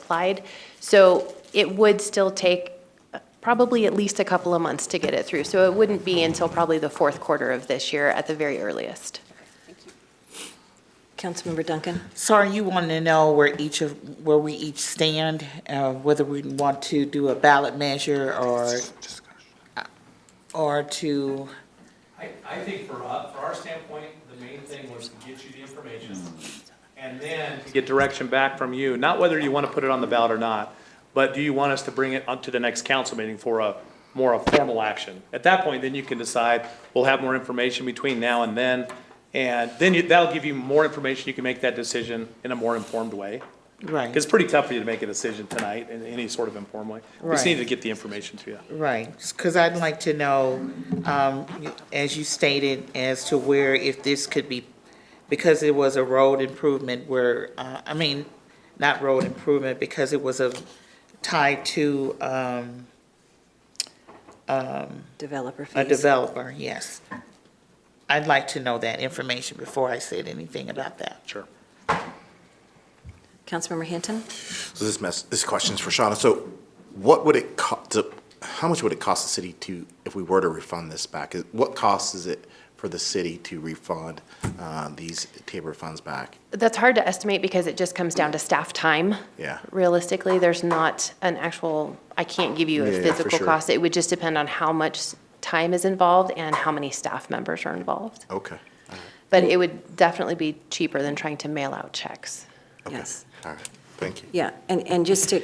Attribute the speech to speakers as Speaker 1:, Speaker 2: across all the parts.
Speaker 1: applied. So it would still take uh, probably at least a couple of months to get it through. So it wouldn't be until probably the fourth quarter of this year at the very earliest.
Speaker 2: Councilmember Duncan?
Speaker 3: So are you wanting to know where each of, where we each stand, uh, whether we want to do a ballot measure or, or to,
Speaker 4: I, I think for us, for our standpoint, the main thing was to get you the information and then. Get direction back from you, not whether you want to put it on the ballot or not, but do you want us to bring it up to the next council meeting for a, more a formal action? At that point, then you can decide, we'll have more information between now and then. And then you- that'll give you more information, you can make that decision in a more informed way.
Speaker 3: Right.
Speaker 4: It's pretty tough for you to make a decision tonight in any sort of informed way. We just
Speaker 3: Right.
Speaker 4: need to get the information to you.
Speaker 3: right? Because I'd like to know, um, you- as you stated, as to where if this could be, because it was a road improvement where, uh, I mean, not road improvement, because it was a, tied to, um,
Speaker 2: Developer
Speaker 3: a
Speaker 2: fees.
Speaker 3: developer, yes. I'd like to know that information before I said anything about that.
Speaker 4: Sure.
Speaker 2: Councilmember Hinton?
Speaker 5: So this mess, this question's for Shauna. So what would it cost, how much would it cost the city to, if we were to refund this back? Is- What cost is it for the city to refund uh, these Tabor funds back?
Speaker 1: That's hard to estimate because it just comes down to staff time.
Speaker 5: Yeah.
Speaker 1: Realistically, there's not an actual, I can't give you a
Speaker 5: Yeah, for
Speaker 1: physical
Speaker 5: sure.
Speaker 1: cost. It would just depend on how much s- time is involved and how many staff members are involved.
Speaker 5: Okay,
Speaker 1: But it would definitely be cheaper than trying to mail out checks.
Speaker 2: Yes.
Speaker 5: all right, thank you.
Speaker 2: Yeah, and, and just to,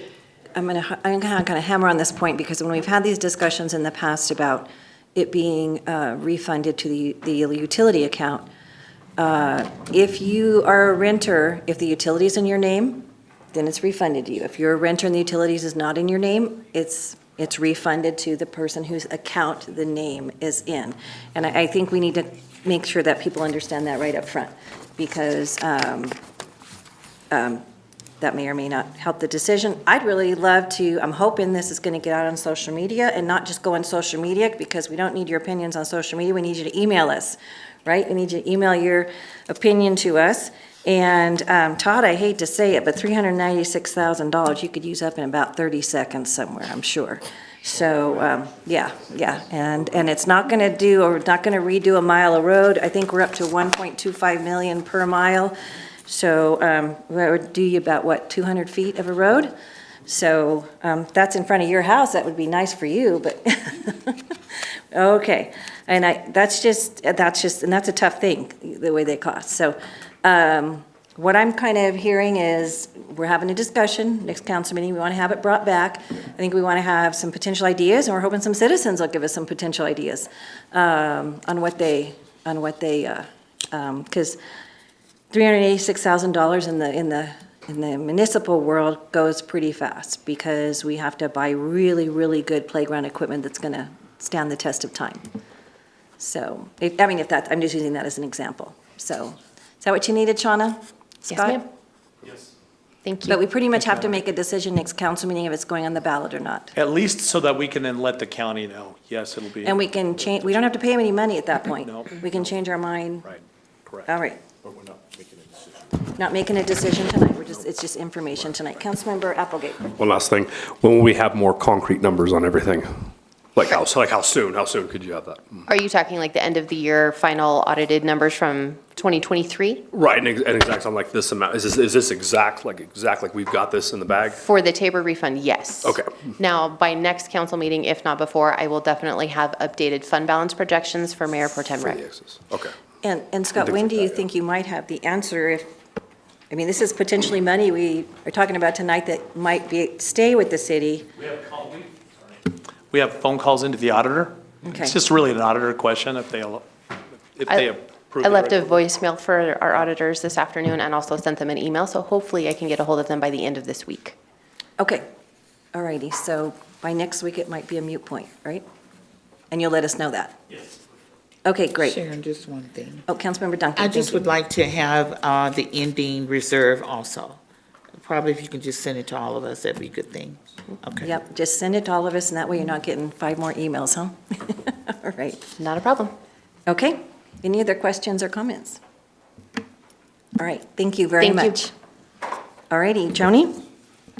Speaker 2: I'm going to, I'm going to hammer on this point, because when we've had these discussions in the past about it being uh, refunded to the, the utility account, uh, if you are a renter, if the utility's in your name, then it's refunded to you. If you're a renter and the utilities is not in your name, it's, it's refunded to the person whose account the name is in. And I, I think we need to make sure that people understand that right up front, because um, um, that may or may not help the decision. I'd really love to, I'm hoping this is going to get out on social media and not just go on social media because we don't need your opinions on social media. We need you to email us, right? We need you to email your opinion to us. And um, Todd, I hate to say it, but $396,000, you could use up in about 30 seconds somewhere, I'm sure. So, um, yeah, yeah. And, and it's not going to do, or not going to redo a mile of road. I think we're up to 1.25 million per mile. So um, that would do you about, what, 200 feet of a road? So um, that's in front of your house, that would be nice for you, but, okay. And I, that's just, that's just, and that's a tough thing, the way they cost. So um, what I'm kind of hearing is, we're having a discussion, next council meeting, we want to have it brought back. I think we want to have some potential ideas, and we're hoping some citizens will give us some potential ideas um, on what they, on what they, uh, um, because $386,000 in the, in the, in the municipal world goes pretty fast because we have to buy really, really good playground equipment that's going to stand the test of time. So, if, I mean, if that, I'm just using that as an example. So, is that what you needed, Shauna?
Speaker 1: Yes,
Speaker 2: Scott?
Speaker 1: ma'am? Thank you.
Speaker 2: But we pretty much have to make a decision next council meeting if it's going on the ballot or not.
Speaker 4: At least so that we can then let the county know, yes, it'll be.
Speaker 2: And we can change, we don't have to pay him any money at that point.
Speaker 4: No.
Speaker 2: We can change our mind.
Speaker 4: Right, correct.
Speaker 2: All right.
Speaker 5: But we're not making a decision.
Speaker 2: Not making a decision tonight, we're just, it's just information tonight. Councilmember Applegate.
Speaker 6: One last thing, when will we have more concrete numbers on everything? Like how, so like how soon, how soon could you have that?
Speaker 1: Are you talking like the end of the year final audited numbers from 2023
Speaker 6: Right, and ex- and exact, I'm like this amount, is this, is this exact, like exact, like we've got this in the bag?
Speaker 1: for the Tabor refund? Yes.
Speaker 6: Okay.
Speaker 1: Now, by next council meeting, if not before, I will definitely have updated fund balance projections for Mayor Pro Tem
Speaker 6: For
Speaker 1: Rick.
Speaker 6: the excess, okay.
Speaker 2: And, and Scott, when do you think you might have the answer if, I mean, this is potentially money we are talking about tonight that might be, stay with the city.
Speaker 4: We have call, we, we have phone calls into the auditor.
Speaker 2: Okay.
Speaker 4: It's just really an auditor question if they, al- if they approve.
Speaker 1: I
Speaker 4: it
Speaker 1: left a
Speaker 4: right.
Speaker 1: voicemail for our auditors this afternoon and also sent them an email, so hopefully I can get a hold of them by the end of this week.
Speaker 2: Okay, all righty, so by next week, it might be a mute point, right? And you'll let us know that? Yes. Okay, great.
Speaker 3: Sharon, just one thing.
Speaker 2: Oh, Councilmember Duncan,
Speaker 3: I
Speaker 2: thank
Speaker 3: just
Speaker 2: you.
Speaker 3: would like to have uh, the ending reserve also. Probably if you can just send it to all of us, that'd be a good thing. Okay.
Speaker 2: Yep, just send it to all of us, and that way you're not getting five more emails, huh? All right,
Speaker 1: Not a problem.
Speaker 2: okay. Any other questions or comments? All right, thank you very
Speaker 1: Thank you.
Speaker 2: much. All righty, Joni?